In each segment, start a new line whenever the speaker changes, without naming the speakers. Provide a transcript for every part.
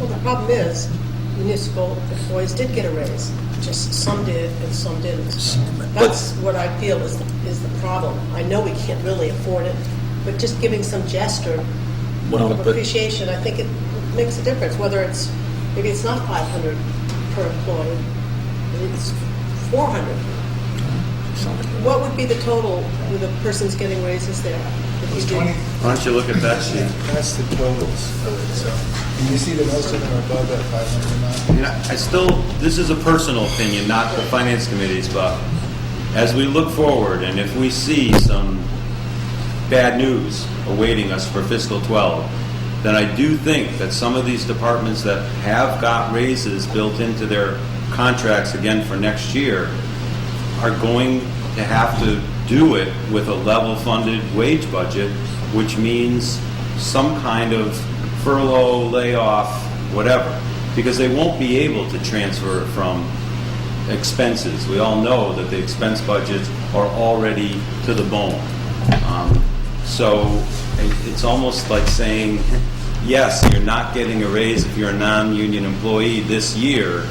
Well, the problem is municipal employees did get a raise, just some did and some didn't. That's what I feel is, is the problem. I know we can't really afford it, but just giving some gesture
Well,
of
but-
appreciation, I think it makes a difference, whether it's, maybe it's not 500 per employee, maybe it's 400. What would be the total with a person's getting raises there? if you
It's
did-
20,
Why don't you look at that sheet?
that's the totals of it, so, and you see that most of them are above that 500
I
amount.
mean, I I still, this is a personal opinion, not the finance committee's, but as we look forward, and if we see some bad news awaiting us for fiscal 12, then I do think that some of these departments that have got raises built into their contracts again for next year are going to have to do it with a level-funded wage budget, which means some kind of furlough, layoff, whatever, because they won't be able to transfer it from expenses. We all know that the expense budgets are already to the bone. Um, So it- it's almost like saying, yes, you're not getting a raise if you're a non-union employee this year,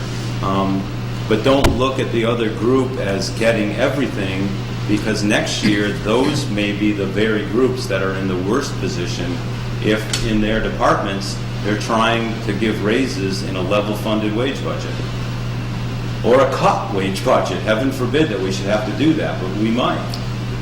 um, but don't look at the other group as getting everything, because next year, those may be the very groups that are in the worst position if in their departments, they're trying to give raises in a level-funded wage budget or a cut wage budget. Heaven forbid that we should have to do that, but we might.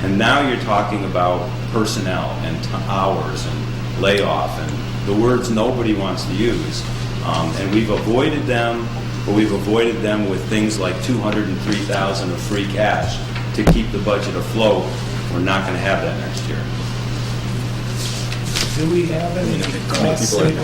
And now you're talking about personnel and t- hours and layoff and the words nobody wants to use. Um, and we've avoided them, but we've avoided them with things like 203,000 of free cash to keep the budget afloat. We're not going to have that next year.
Do we have any cost-saving,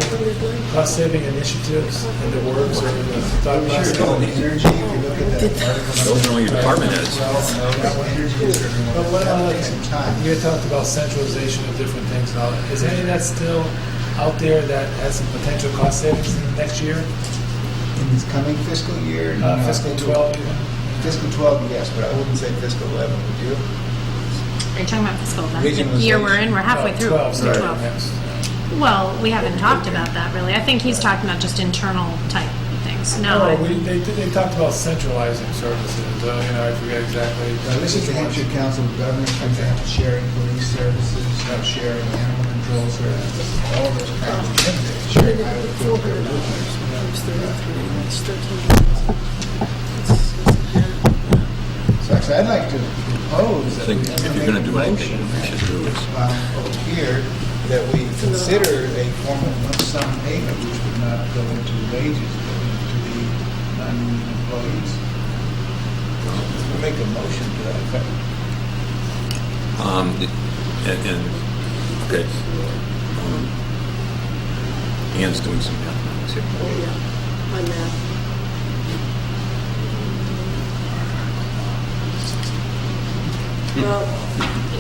cost-saving initiatives in the works or in the thought process?
Still, the energy, if you look at that article.
Those are all your department heads.
Well, energy is everyone.
But what about,
At the same time.
like, you had talked about centralization of different things. Now, Is any of that still out there that has some potential cost savings in next year,
in this coming fiscal year?
Uh,
no,
fiscal
maybe-
12 even?
Fiscal 12, yes, but I wouldn't say fiscal 11, would you?
Are you talking about fiscal,
Regionalization.
the year we're in, we're halfway
Well,
through.
12,
so
sorry,
12.
next.
Well, we haven't talked about that really. I think he's talking about just internal type things. No,
No,
I-
Oh, we, they, they talked about centralizing services, uh, you know, I forget exactly.
No, this is the Hampshire Council of Governments, for example, sharing police services, uh, sharing animal control services, all those kinds of things. Sharing highway patrol services. So actually, I'd like to propose
I
that we.
think if you're going to do
make a
anything,
motion
we should do is
um, over here that we consider a form of lump sum payment, which would not go into wages, but into the non-union employees. We'll Make a motion to that effect.
Um, it- And, and, okay. Um, Anne's doing some math. here.
On that.
Well,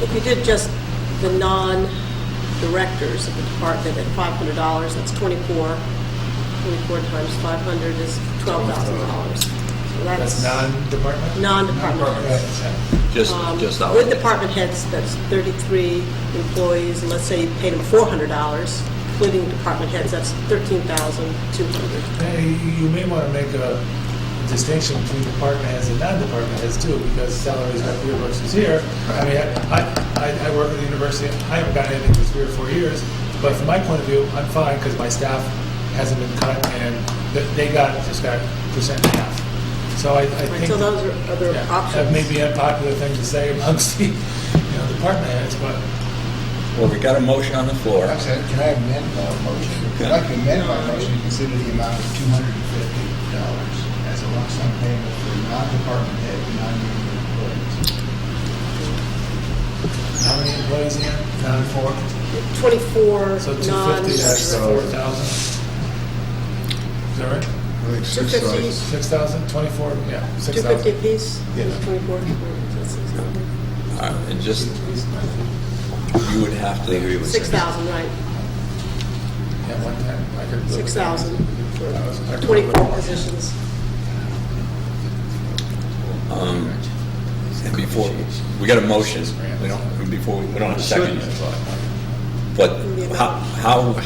if you did just the non-directors of the department at $500, that's 24, 24 times 500 is $12,000. So
That's non-department?
Non-department.
Just,
Um,
just out.
With department heads, that's 33 employees, and let's say you paid them $400, including department heads, that's 13200
Hey, you- you may want to make a distinction between department heads and non-department heads too, because salaries up here versus here. I mean, I, I, I work at the university, I haven't gotten anything for three or four years, but from my point of view, I'm fine, because my staff hasn't been cut, and th- they got, just got percent and a half. So I, I
Right,
think.
so those are other
Yeah, That
options.
may be an unpopular thing to say amongst the, you know, department heads, but
Well, we got a motion on the floor.
I'm sorry, can I amend my motion? I'd like to amend my motion to consider the amount of two hundred and fifty dollars as a lump sum payment for non-department head, non-union employees.
how many employees again?
Non-four?
24
So two fifty, that's
non-directors.
four thousand. Is that right? Six thousand, twenty-four, yeah,
250
six thousand.
apiece?
Yes.
24, that's 6,000.
Uh, And just, you would have to agree with.
6,000, right,
Yeah, one time, I could. live with that.
6,000
I
for
could
24
live with
positions.
Um, and Before, we got a motion, we don't, before, we don't have a second yet. But how, how,